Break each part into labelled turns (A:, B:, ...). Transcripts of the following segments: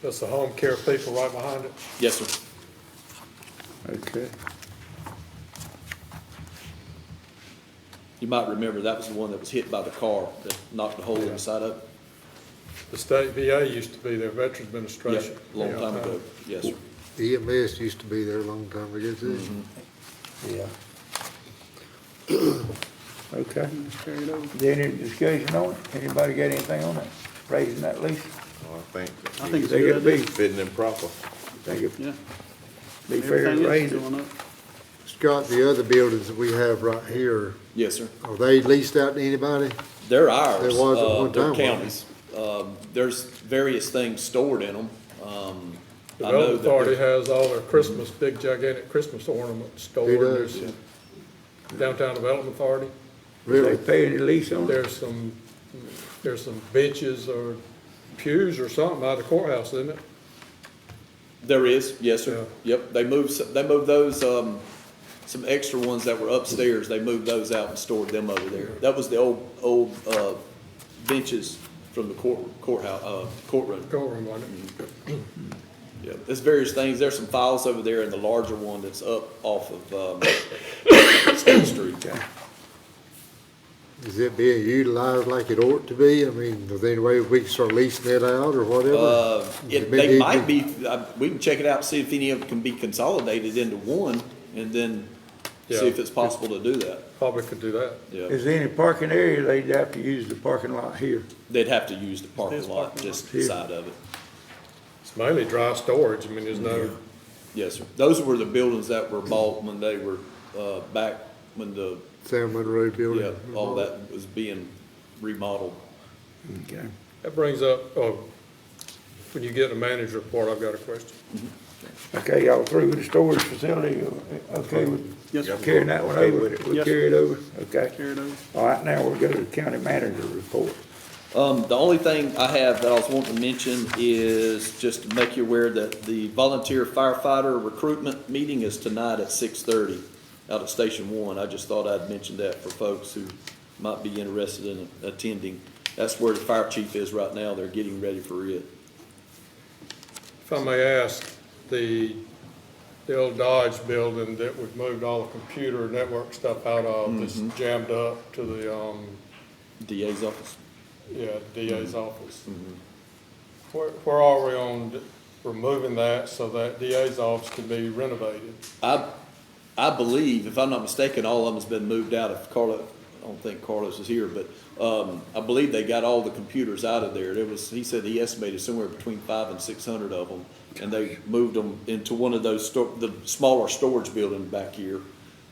A: That's the home care people right behind it.
B: Yes, sir.
C: Okay.
B: You might remember, that was the one that was hit by the car that knocked a hole in the side of. it.
A: The state VA used to be their Veterans Administration.
B: Yep, a Long time ago, yes, sir.
D: EMS E used to be there a long time ago too.
C: Yeah. Okay. Is there any discussion on it? Anybody got anything on it? Raising that lease?
E: Well, I
F: I
E: think
F: think it's a
C: They gotta
F: good
C: be,
F: idea.
E: fitting and proper.
C: think it'd
F: Yeah.
C: be
F: Everything
C: fair to
F: else is
C: raise it.
F: going up.
D: Scott, the other buildings that we have right here,
B: Yes, sir.
D: are they leased out to anybody?
B: They're ours.
D: There was at
B: uh,
D: one
B: they're
D: time, wasn't there?
B: counties. Um, there's various things stored in them. Um,
A: The
B: I know
A: Development
B: that there's-
A: Authority has all their Christmas, big gigantic Christmas ornaments stored.
D: Who does?
A: There's Downtown Development Authority,
C: They
D: Really?
C: pay any lease on it?
A: there's some, there's some benches or pews or something out of the courthouse, isn't it?
B: There is, yes, sir. Yep, they moved, s- they moved those, um, some extra ones that were upstairs, they moved those out and stored them over there. That was the old, old, uh, benches from the court, courthouse, uh, courtroom.
A: Courtroom, wasn't
B: Mm-hmm.
A: it?
B: Yeah, there's various things, there's some files over there in the larger one that's up off of, um, State Street.
D: Is it being utilized like it ought to be? I mean, is there any way we can start leasing it out or whatever?
B: Uh, it,
D: Maybe
B: they
D: it
B: might
D: could-
B: be, uh, we can check it out, see if any of them can be consolidated into one, and then see if
A: Yeah.
B: it's possible to do that,
A: Probably could do that.
B: yeah.
C: Is there any parking area? They'd have to use the parking lot here.
B: They'd have to use the parking
F: There's
B: lot,
F: parking
B: just
C: here.
B: side of it.
A: It's mainly dry storage, I mean, there's no,
B: Mm-hmm. Yes, sir. Those were the buildings that were bought when they were, uh, back when the,
D: Sam Monroe
B: yeah,
D: Building.
B: all that was being remodeled.
C: Okay.
A: that brings up, oh, when you get a manager report, I've got a question.
C: Okay, y'all through with the storage facility? Okay with
F: Yes, sir.
C: carrying that one over? We
F: Yes,
C: carry it over? Okay.
F: Carried over.
C: All right, now we'll go to the county manager report.
B: Um, the only thing I have that I was wanting to mention is just to make you aware that the volunteer firefighter recruitment meeting is tonight at six thirty out at Station One. I just thought I'd mention that for folks who might be interested in attending. That's where the fire chief is right now. They're getting ready for it.
A: If I may ask, the, the old Dodge building that we've moved all the computer network stuff out of,
B: Mm-hmm.
A: that's jammed up to the, um,
B: DA's office.
A: yeah,
B: Mm-hmm.
A: DA's office. Where, where are we on d- removing that so that DA's office can be renovated?
B: I, I believe, if I'm not mistaken, all of them's been moved out of Carlos. I don't think Carlos is here, but, um, I believe they got all the computers out of there. There was, he said he estimated somewhere between five and six hundred of them. And they moved them into one of those sto- the smaller storage building back here.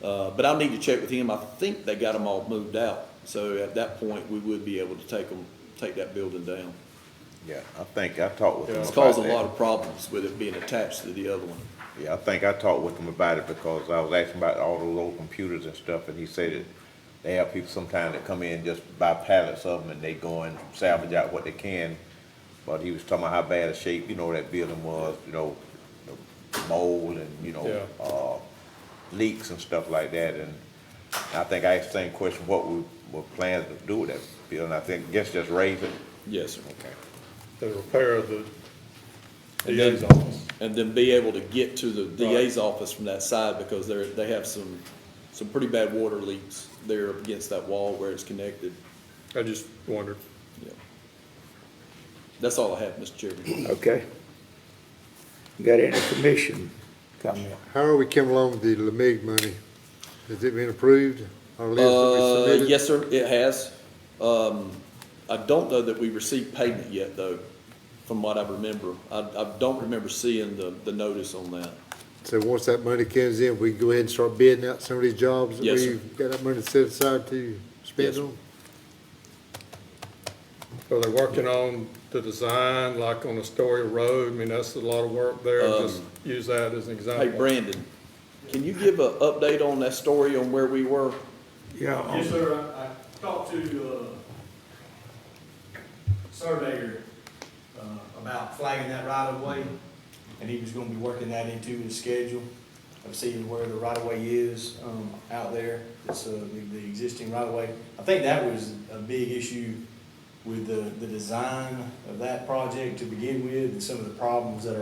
B: Uh, but I'll need to check with him. I think they got them all moved out. So at that point, we would be able to take them, take that building down.
E: Yeah, I think I talked with them
B: It's
E: about
B: caused a
E: that.
B: lot of problems with it being attached to the other one.
E: Yeah, I think I talked with him about it because I was asking about all those old computers and stuff, and he said that they have people sometimes that come in and just buy pallets of them and they go and salvage out what they can. But he was talking about how bad a shape, you know, that building was, you know, the mold and, you know,
A: Yeah.
E: uh, leaks and stuff like that, and I think I asked the same question, what we were planning to do with that building, I think, guess just raise it.
B: Yes, sir.
E: Okay.
A: The repair of the
B: And
A: DA's
B: then-
A: office?
B: and then be able to get to the DA's office from that side because they're, they have some, some pretty bad water leaks there against that wall where it's connected.
A: I just wondered.
B: Yeah. That's all I have, Mr. Chairman.
C: Okay. Got any commission comment?
D: How are we coming along with the LMIG money? Has it been approved? Our list that we
B: Uh,
D: submitted?
B: yes, sir, it has. Um, I don't know that we received payment yet though, from what I remember. I, I don't remember seeing the, the notice on that.
D: So once that money comes in, we go ahead and start bidding out some of these jobs that
B: Yes, sir.
D: we've got that money set aside to
B: Yes,
D: spend
B: sir.
D: on?
A: Are they working on the design, like on Astoria Road? I mean, that's a lot of work there. Just use that as an
B: Um, Hey,
A: example.
B: Brandon, can you give a update on that story on where we were?
C: Yeah.
G: Yes, sir, I, I talked to, uh, surveyor, uh, about flagging that right of way, and he was gonna be working that into his schedule of seeing where the right of way is, um, out there, it's, uh, the, the existing right of way. I think that was a big issue with the, the design of that project to begin with and some of the problems that are